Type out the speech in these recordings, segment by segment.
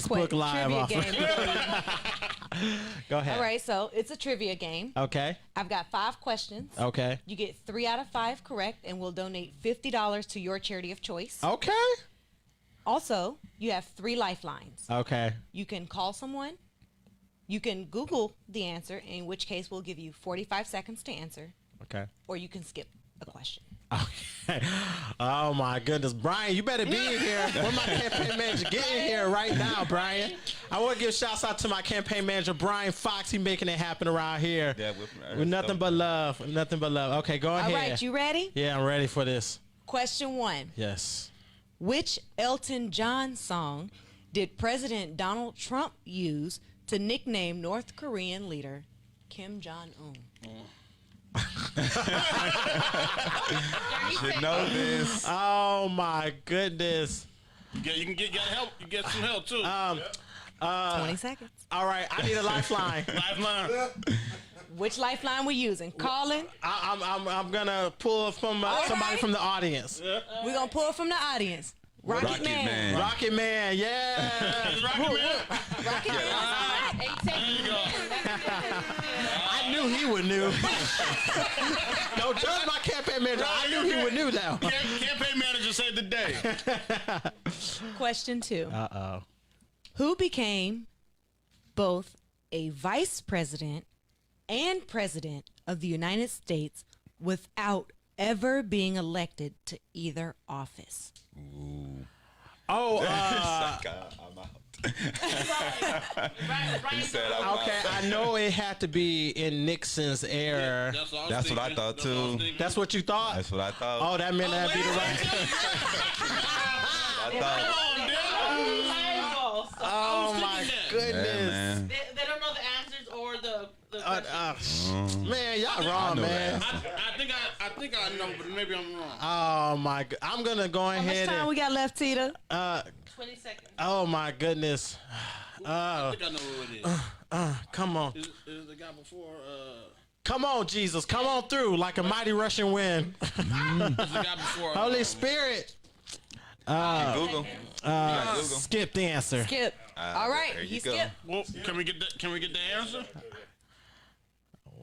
Facebook Live Trivia off. game. Go ahead. All right, so it's a trivia game. Okay. I've got five questions. Okay. You get three out of five correct, and we'll donate fifty dollars to your charity of choice. Okay. Also, you have three lifelines. Okay. You can call someone. You can Google the answer, in which case we'll give you forty-five seconds to answer, Okay. or you can skip a question. Okay. Oh my goodness, Brian, you better be in here. Where my campaign manager? Get in here right now, Brian. I want to give shouts out to my campaign manager, Brian Fox. He making it happen around here. Yeah, with- with nothing but love, nothing but love. Okay, go All ahead. right, you ready? yeah, I'm ready for this. Question one. Yes. Which Elton John song did President Donald Trump use to nickname North Korean leader Kim Jong Un? Should know this. Oh my goodness. Yeah, you can get, get help. You get some help too. Um, 20 seconds. All right, I need a lifeline. Lifeline. Which lifeline we using? Calling? I, I'm, I'm, I'm gonna pull from uh, All somebody right. from the audience. We're going to pull from the audience. Rocket, Rocket Man. Man. Rocket Man, yeah. Rocket Man. Rocket Man. I knew he would knew. Don't judge my campaign manager. I knew he would knew that. one. Cam- Campaign manager saved the day. Question two. Uh oh. Who became both a vice president and president of the United States without ever being elected to either office? Oh, uh, It's like, uh, I'm out. he said I'm okay. out. I know it had to be in Nixon's era. all That's what I thought, That's all too. thinking. That's what you thought. That's what I thought. Oh, that meant that'd be the right. I thought. Come on, dude. Oh my thinking that. Yeah, goodness. man. They, they don't know the answers or the. the Uh, questions. uh, man, y'all Mm. I wrong, know man. that. I, I think I, I think I know, but maybe I'm wrong. Oh my! go- I'm gonna go How much ahead time and. we got left, Tita? Uh, 20 seconds. oh my goodness! I think I know who it is. Come on, Is, is the guy before? Uh, come on, Jesus! Come on through like a mighty rushing wind. is the guy before? Holy uh, Spirit. Google. Uh, Google. Skip the answer. Skip. Uh, Ah, All right, there he you go. skipped. Well, can we get the, can we get the answer?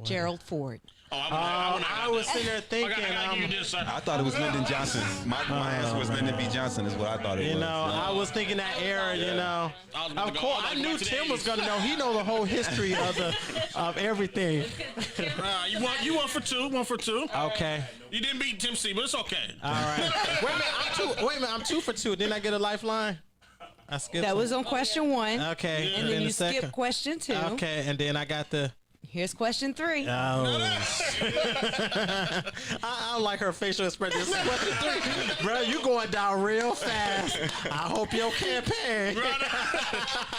Gerald Ford. Oh, Oh, I, wanna, I, I wanna, was sitting there I, gotta- thinking. I gotta um, give you this. Sir. I thought it was Lyndon Johnson. My, my answer was Lyndon B. Johnson. Is what I thought it You was. know, I was thinking that era. You know, I was about of to go- course, was I about knew to Tim was the gonna know. He know the whole history of the of everything. Uh, you want you one for two, one for two. Okay. You didn't beat Tim C, but it's okay. All right. Wait a minute. I'm two. Wait a minute. I'm two for two. Didn't I get a lifeline? I skipped. That it. was on question one. okay. And then the you skip second. question two. Okay, Uh, and then I got the. Here's question three. I, I don't like her facial expression. This is question three, bro. You going down real fast. I hope your campaign. Brother.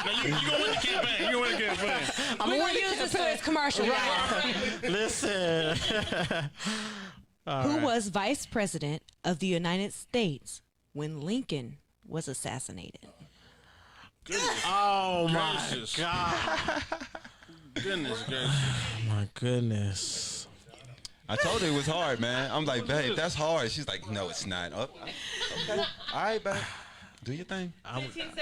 now you, you gonna win the campaign. You gonna win the campaign. I'm We're winning gonna use this for his commercial. guys. campaign. Listen. Who was vice president of the United States when Lincoln was assassinated? Oh my Gracious. god. Goodness gracious. My goodness. I told her it was hard, man. I'm like, babe, that's hard. She's like, no, it's not. Oh, all right, babe. Do your thing. 15 seconds.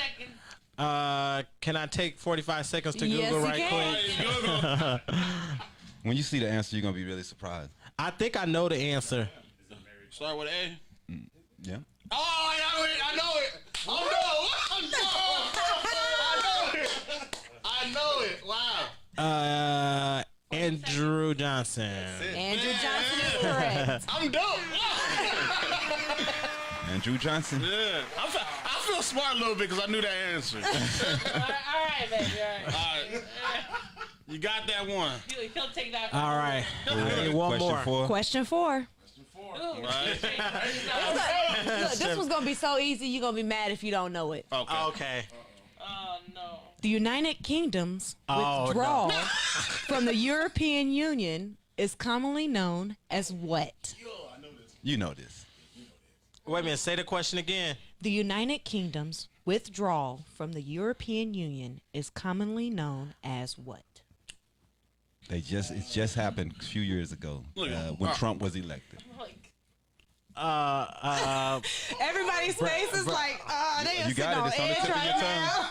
Uh, can I take 45 seconds to Yes, Google you right can. quick? Hey, Google. When you see the answer, you're gonna be really surprised. I think I know the answer. Start with A. Yeah. Oh, I know it. I know it. Oh no. I know it. I know it. Wow. Uh, Andrew Johnson. Andrew Johnson is correct. I'm dope. Wow. Andrew Johnson. Yeah. I feel, I feel smart a little bit because I knew that answer. All All right, all right baby. All Uh, right. right. You got that one. He'll, he'll take that. All right, I need one Question more. four. Question four. Ooh, Right. Look, this was gonna be so easy. You're gonna be mad if you don't know it. Okay. Okay. Oh, no. The United Kingdom's Oh, no. withdrawal from the European Union is commonly known as what? You know this. Wait a minute. Say the question again. The United Kingdom's withdrawal from the European Union is commonly known as what? They just it just happened a few years ago uh, Look at him. when Trump was elected. Like, Uh, uh, Everybody's face is like, oh, they You got it. It's on the tip of your tongue.